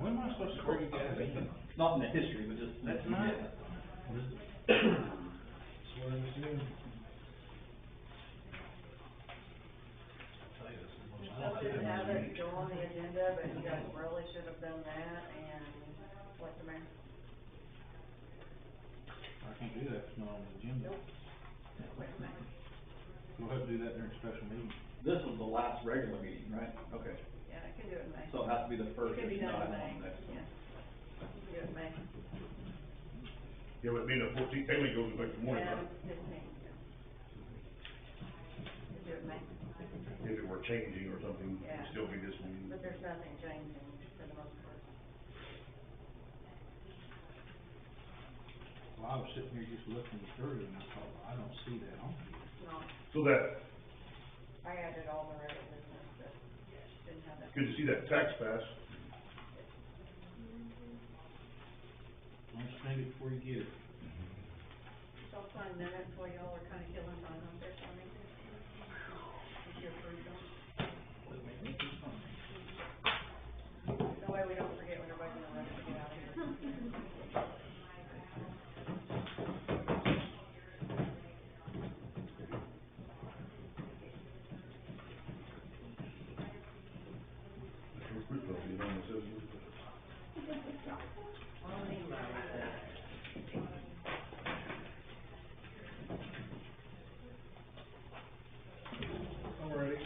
When am I supposed to bring you guys in? Not in the history, but just. That's nice. Swear to sin. So we have it still on the agenda, but you guys really should have done that and let the mayor. I can't do that, it's not on the agenda. Wait a minute. We'll have to do that during special meeting. This was the last regular meeting, right? Okay, Yeah, I can do it in May. so it has to be the It first. can be if not, done in I'm May, on next one. yeah. You can do it in May. Yeah, but being a fourteen, technically goes to next morning, Yeah, right? fifteenth, yeah. You can do it in May, If it were changing or something, Yeah. it'd still be this meeting. but there's nothing changing for the most part. Well, I was sitting here just looking through and I thought, I don't see that on here. No, So that, I added all the regular business, but didn't have that. good to see that tax pass. Understand it before you get it. So I'll sign minutes while y'all are kinda killing time on this one. If you approve them. That way we don't forget when everybody's gonna rush to get out of here. Mr. Recruit, though, you know, it says- Alrighty.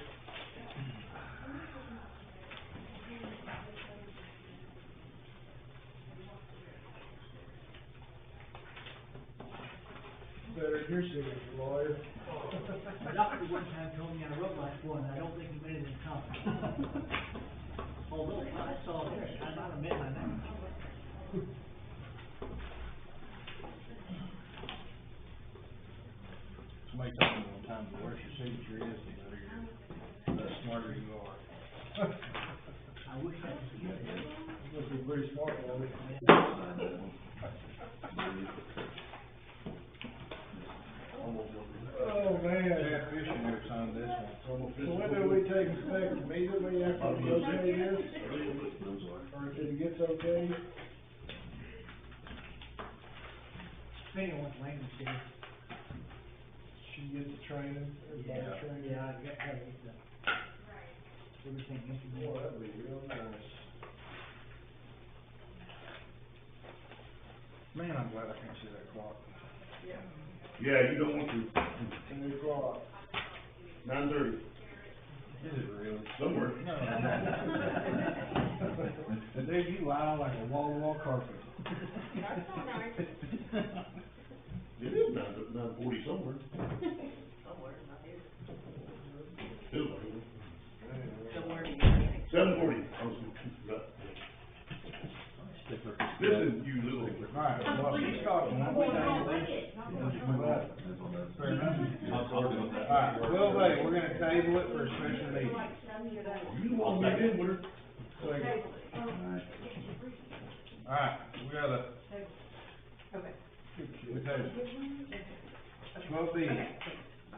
Better than your signature, lawyer. Doctor one time told me I wrote like one, I don't think he made it in comment. Oh, Although, I saw this, I might have met my name. Somebody told me one time, the worse your signature is, the better your, the smarter you are. I wish I could see it. Must be pretty smart, lawyer. Oh, man. Jack Fisher never signed this one. So when do we take it back immediately after it's okay this? Or if it gets okay? Depending on what language it is. She gets the training, everybody's training. Yeah, I got, got it, uh, everything Boy, implemented. that'd be real nice. Man, I'm glad I can't see that clock. Yeah, you don't want to, Ten o'clock. nine thirty, Is it really? somewhere. Dude, you lie like a wall-to-wall carpet. That's all right. It is nine, nine forty somewhere. Somewhere, not here. Anyway. Seven forty, Oh, I was, Sticker. listen, you little. Alright, well, she's talking, I'm gonna table this. Fair enough. Alright, well, hey, we're gonna table it for a special meeting. You the one that did, winner. Alright, we got a, we table. Twelve B.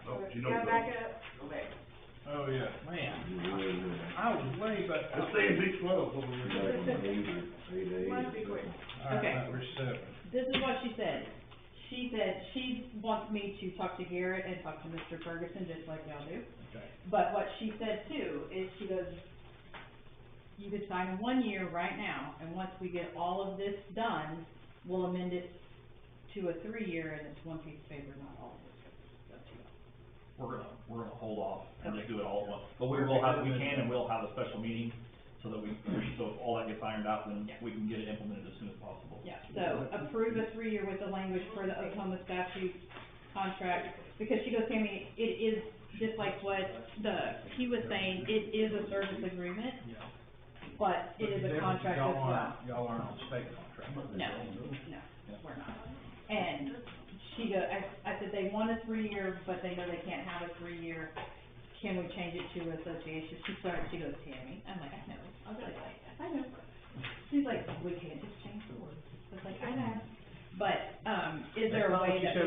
Oh, you know. Got back up. Oh, yeah. Man, I was way back. Let's say in big twelve over there. Mine's be quick. Okay. Alright, we're seven. This is what she said. She said she wants me to talk to Garrett and talk to Mr. Ferguson, just like y'all do. Okay. But what she said too, is she goes, you could sign one year right now, and once we get all of this done, we'll amend it to a three-year, and it's one piece of paper, not all of this. We're gonna, we're gonna hold off and just Okay. do it all at once, but we will have, we can and will have a special meeting so that we, so if all that gets ironed out, then Yeah. we can get it implemented as soon as possible. Yeah, so approve a three-year with the language for the Oklahoma statute contract, because she goes, Tammy, it is, just like what the, he was saying, it is a service agreement, Yeah. but it is a contract as Y'all well. aren't, y'all aren't on state contract. No, no, we're not. And she go, I, I said, they want a three-year, but they know they can't have a three-year, can we change it to association? She started, she goes, Tammy, I'm like, I know, I was like, I know. She's like, we can't just change the words, I was like, I know. But, um, is there a way that? we